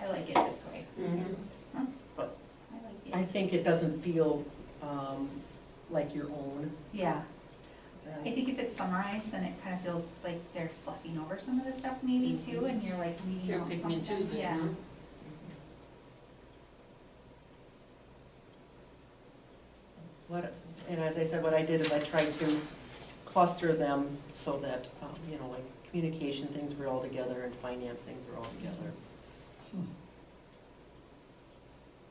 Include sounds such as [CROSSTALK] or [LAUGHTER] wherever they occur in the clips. I like it this way. Mhm. I like I it. think it doesn't feel um, like your own. Yeah, uh, I think if it's summarized, then it kind of feels like they're fluffing over some of the stuff maybe too, and you're like leaving You're out picking and something. choosing, Yeah. huh? What, and as I said, what I did is I tried to cluster them so that, um, you know, like communication things were all together and finance things were all together. Hmm.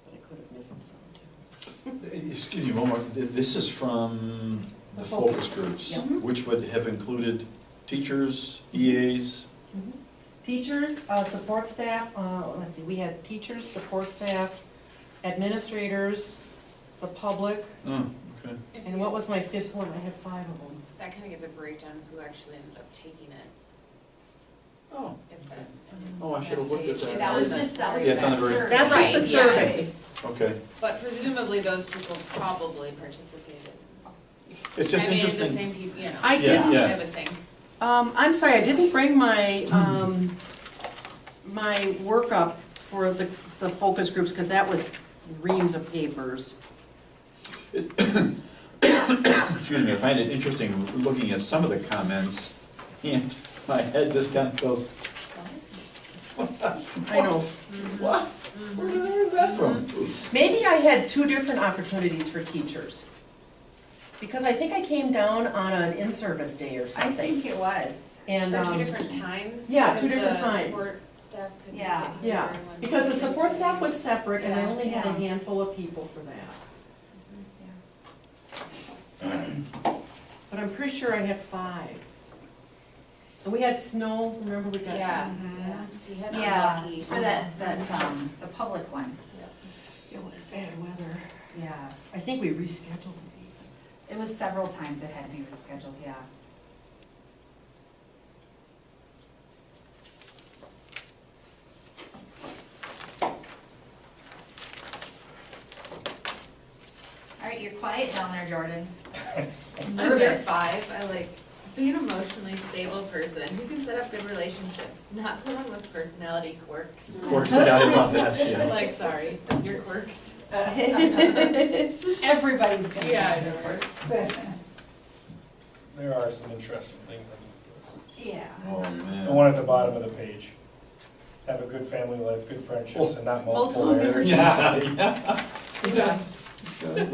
But I could have missed some too. Excuse me, one more, Th- this is from the focus groups, Yeah. which would have included teachers, E EAs, Mm-hmm. Teachers, uh, support staff, uh, let's see, we had teachers, support staff, administrators, the public, oh, okay. If and you- what was my fifth one? I had five of them. That kind of gives a breakdown of who actually ended up taking it, Oh, if that. oh, I should have looked at Yeah, that. That was just, that was Yeah, it's on the very- survey. That's just the Right, yes. survey. Okay, But presumably those people probably participated. it's just I interesting. mean, the same people, you know. I Yeah, didn't yeah. I would think. Um, I'm sorry, I didn't bring my, um, my workup for the, the focus groups, because that was reams of papers. Excuse me, I find it interesting looking at some of the comments, and [LAUGHS] my head just kind of goes, I know, what? Where the hell is that from? maybe I had two different opportunities for teachers. Because I think I came down on an in-service day or I something, think it was. and, Or two um, different times. yeah, two because different times. The support staff could. be Yeah. getting yeah, everyone to because the support staff was separate, and I Yeah, only had a yeah. handful of people for that. But I'm pretty sure I had five. And we had snow, remember we Yeah, got? yeah, we had Yeah, unlucky. for that, that, um, the public one, It was bad weather. yeah. I think we rescheduled the meeting. It was several times it had to be rescheduled, yeah. All right, you're quiet down there, [LAUGHS] Jordan. Under five, I like, be an emotionally stable person who can set up good relationships, not someone with personality quirks. Of course, yeah, I love that, yeah. Like, sorry, your quirks. Everybody's gonna. Yeah, I have know, right? their quirks. There are some interesting things on this list. Yeah. Oh, man. The one at the bottom of the page. Have a good family life, good friendships, and not multiple Multiple marriages. Oh, [LAUGHS] Yeah, yeah, Yeah. exactly.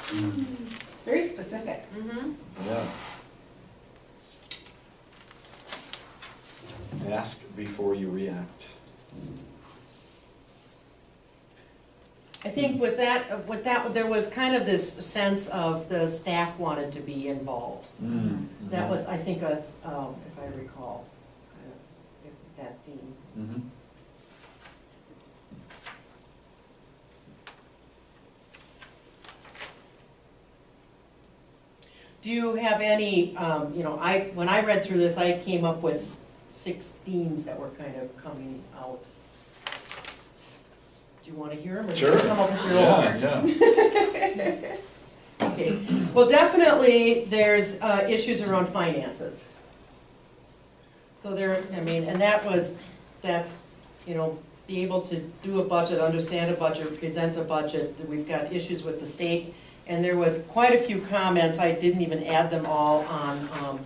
It's very specific. Mm-hmm. Yeah. Ask before you react. I think with that, with that, there was kind of this sense of the staff wanted to be involved. Mm-hmm. That was, I think, us, um, if I recall, kind of, if that theme. Mhm. Do you have any, um, you know, I, when I read through this, I came up with s- six themes that were kind of coming out. Do you wanna hear them? Sure. Come up with your own? Yeah, yeah. Okay, well, definitely, there's uh, issues around finances. So there, I mean, and that was, that's, you know, be able to do a budget, understand a budget, present a budget, that we've got issues with the state. And there was quite a few comments, I didn't even add them all, on um,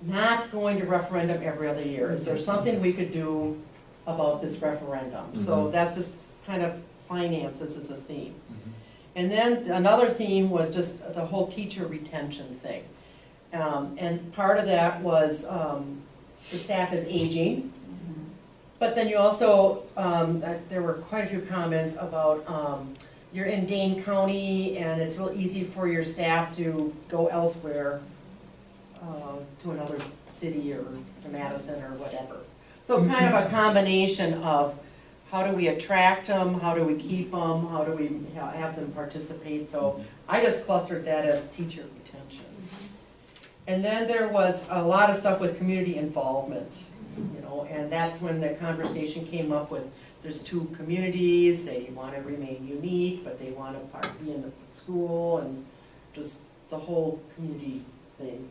not going to referendum every other year. Is there something we could do about this referendum? So Mhm. that's just kind of finances is a theme. [LAUGHS] And then another theme was just the whole teacher retention thing. Um, and part of that was, um, the staff is aging. But then you also, um, uh, there were quite a few comments about, um, you're in Dane County and it's real easy for your staff to go elsewhere, uh, to another city or to Madison or whatever. So kind of a combination of how do we attract them, how do we keep them, how do we ha- have them participate? So I just clustered that as teacher retention. Mm-hmm. And then there was a lot of stuff with community involvement, you know, and that's when the conversation came up with, there's two communities, they want to remain unique, but they want to part, be in the school, and just the whole community thing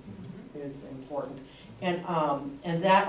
is important. And, um, and that